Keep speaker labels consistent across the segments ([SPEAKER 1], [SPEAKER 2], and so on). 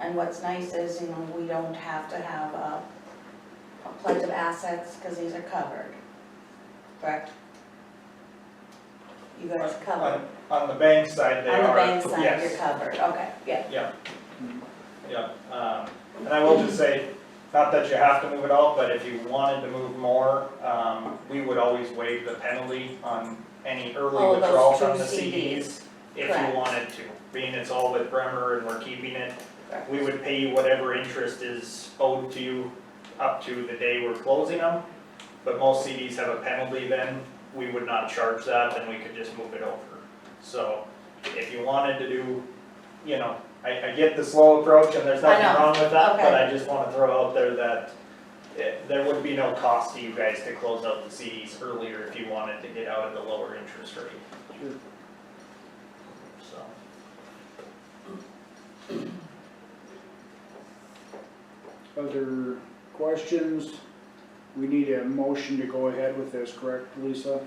[SPEAKER 1] And what's nice is, you know, we don't have to have a a pledge of assets, because these are covered, correct? You guys covered,
[SPEAKER 2] On on the bank
[SPEAKER 3] Uh,
[SPEAKER 2] side, they
[SPEAKER 1] on the
[SPEAKER 2] are,
[SPEAKER 1] bank side,
[SPEAKER 2] yes.
[SPEAKER 1] you're covered, okay, yeah,
[SPEAKER 2] Yeah. Yeah, um, and I will just say, not that you have to move it all, but if you wanted to move more, um, we would always waive the penalty on any
[SPEAKER 1] Oh,
[SPEAKER 2] early
[SPEAKER 1] those
[SPEAKER 2] withdrawal
[SPEAKER 1] two
[SPEAKER 2] from the
[SPEAKER 1] CDs.
[SPEAKER 2] CDs if
[SPEAKER 1] Correct.
[SPEAKER 2] you wanted to. Being it's all with Bremer and we're keeping it,
[SPEAKER 1] Correct.
[SPEAKER 2] we would pay you whatever interest is owed to you up to the day we're closing them. But most CDs have a penalty then, we would not charge that, then we could just move it over. So if you wanted to do, you know, I, I get the slow approach and there's
[SPEAKER 1] I
[SPEAKER 2] nothing
[SPEAKER 1] know.
[SPEAKER 2] wrong with that, but
[SPEAKER 1] Okay.
[SPEAKER 2] I just wanna throw out there that it- there would be no cost to you guys to close out the CDs earlier if you wanted to get out at the lower interest rate. So,
[SPEAKER 4] Other questions? We need a motion to go ahead with this, correct, Lisa?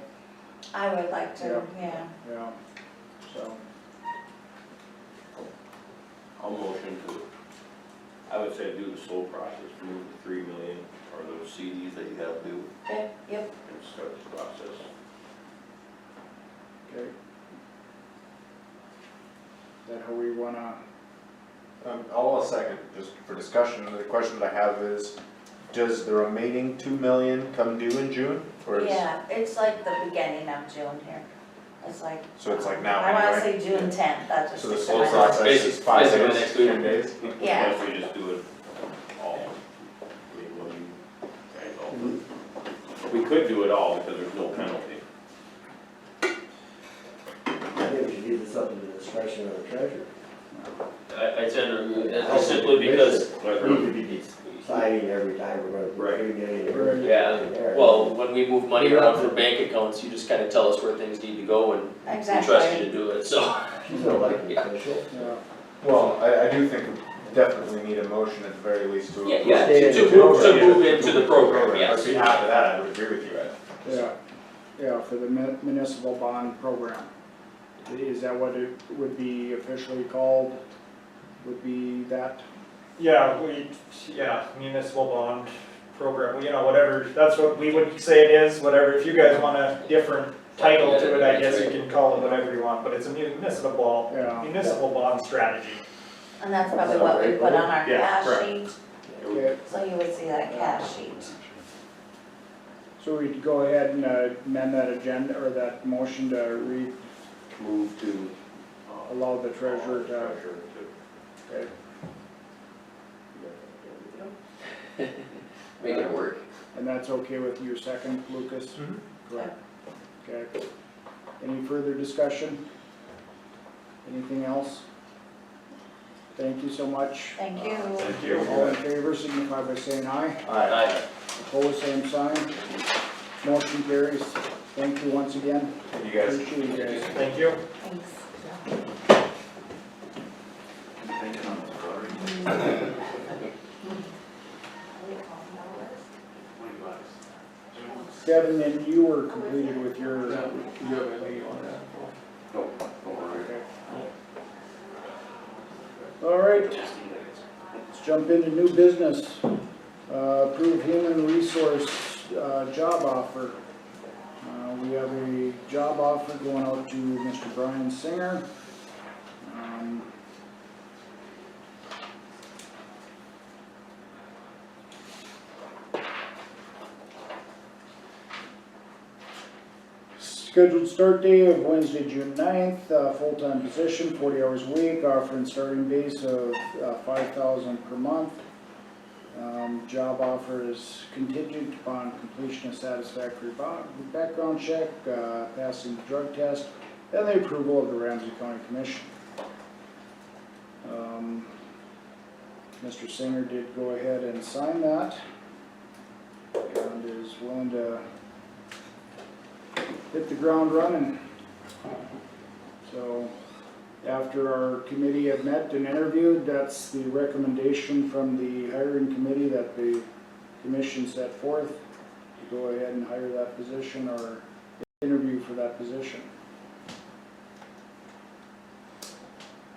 [SPEAKER 1] I would like to, yeah,
[SPEAKER 4] Yeah, so,
[SPEAKER 5] I'll motion to, I would say do the slow process, move the three million or those CDs that you have due
[SPEAKER 1] okay, yep,
[SPEAKER 5] and start the process.
[SPEAKER 4] okay. Is that how we wanna,
[SPEAKER 3] Um, I'll a second, just for discussion, the question that I have is, does the remaining two million come due in June? Or is,
[SPEAKER 1] yeah, it's like the beginning of June here, it's like.
[SPEAKER 3] So it's like now
[SPEAKER 1] I wanna say
[SPEAKER 3] anyway.
[SPEAKER 1] June tenth, that's just.
[SPEAKER 3] so the
[SPEAKER 1] sticks in
[SPEAKER 3] slow
[SPEAKER 1] my mind.
[SPEAKER 3] process is
[SPEAKER 5] Basically-
[SPEAKER 3] five
[SPEAKER 5] basically
[SPEAKER 3] days,
[SPEAKER 5] next week.
[SPEAKER 3] ten days?
[SPEAKER 1] Yeah.
[SPEAKER 5] What If we just do it all, I mean, what do you guys all do? We could do it all because there's no penalty.
[SPEAKER 6] I think we should leave this up to the discretion of the treasurer.
[SPEAKER 5] I, I tend
[SPEAKER 6] I
[SPEAKER 5] to,
[SPEAKER 6] think
[SPEAKER 5] simply
[SPEAKER 6] we
[SPEAKER 5] because,
[SPEAKER 6] Deciding every time we're gonna
[SPEAKER 5] Right.
[SPEAKER 6] bring it in.
[SPEAKER 4] Right.
[SPEAKER 6] Yeah,
[SPEAKER 7] Well, when we move money around from bank accounts, you just kinda tell us where things need to go and we trust you
[SPEAKER 1] Exactly,
[SPEAKER 7] to do it, so.
[SPEAKER 6] She's an elected official.
[SPEAKER 4] yeah,
[SPEAKER 3] Well, I, I do think we definitely need a motion at the very least to.
[SPEAKER 7] Yeah, yeah,
[SPEAKER 6] stay
[SPEAKER 7] to,
[SPEAKER 6] in
[SPEAKER 7] to
[SPEAKER 6] the
[SPEAKER 7] move, to
[SPEAKER 6] program.
[SPEAKER 7] move into the program,
[SPEAKER 3] On
[SPEAKER 7] yes.
[SPEAKER 3] behalf of that, I would agree with you, Ed.
[SPEAKER 4] yeah, yeah, for the mun- municipal bond program. Is that what it would be officially called? Would be that?
[SPEAKER 2] yeah, we, yeah, municipal bond program, you know, whatever, that's what we would say it is, whatever, if you guys want a different title to it, I guess you can call it whatever you want, but it's a municipal,
[SPEAKER 4] Yeah,
[SPEAKER 2] municipal bond strategy.
[SPEAKER 1] and that's probably what we put on our
[SPEAKER 3] Yeah,
[SPEAKER 1] cash
[SPEAKER 3] correct.
[SPEAKER 1] sheet,
[SPEAKER 4] okay,
[SPEAKER 1] so you would see that cash sheet.
[SPEAKER 4] so we'd go ahead and uh, amend that agenda, or that motion to re,
[SPEAKER 5] Move to, uh,
[SPEAKER 4] allow the treasurer to,
[SPEAKER 5] treasurer
[SPEAKER 4] okay.
[SPEAKER 7] Make it work.
[SPEAKER 4] And that's okay with you, second, Lucas?
[SPEAKER 2] Mhm.
[SPEAKER 4] Correct. Okay. Any further discussion? Anything else? Thank you so much.
[SPEAKER 1] Thank you.
[SPEAKER 3] Thank
[SPEAKER 4] All in
[SPEAKER 3] you.
[SPEAKER 4] favor, signify by saying aye.
[SPEAKER 3] Aye.
[SPEAKER 4] Opposed, same sign. Motion carries. Thank you once again.
[SPEAKER 3] Thank you guys.
[SPEAKER 4] Appreciate you guys.
[SPEAKER 2] Thank you.
[SPEAKER 1] Thanks.
[SPEAKER 4] Kevin, and you were completed with your,
[SPEAKER 5] No, don't worry.
[SPEAKER 4] all right. Let's jump into new business. Uh, Approve human resource uh, job offer. Uh, We have a job offer going out to Mr. Brian Singer. Um, Scheduled start day of Wednesday, June 9th, uh, full-time position, forty hours a week, offering starting base of, uh, five thousand per month. Um, job offer is contingent upon completion of satisfactory bo- background check, uh, passing drug test, and the approval of the Ramsey County Commission. Um, Mr. Singer did go ahead and sign that, and is willing to hit the ground running. So, after our committee had met and interviewed, that's the recommendation from the hiring committee that the commission set forth to go ahead and hire that position or interview for that position.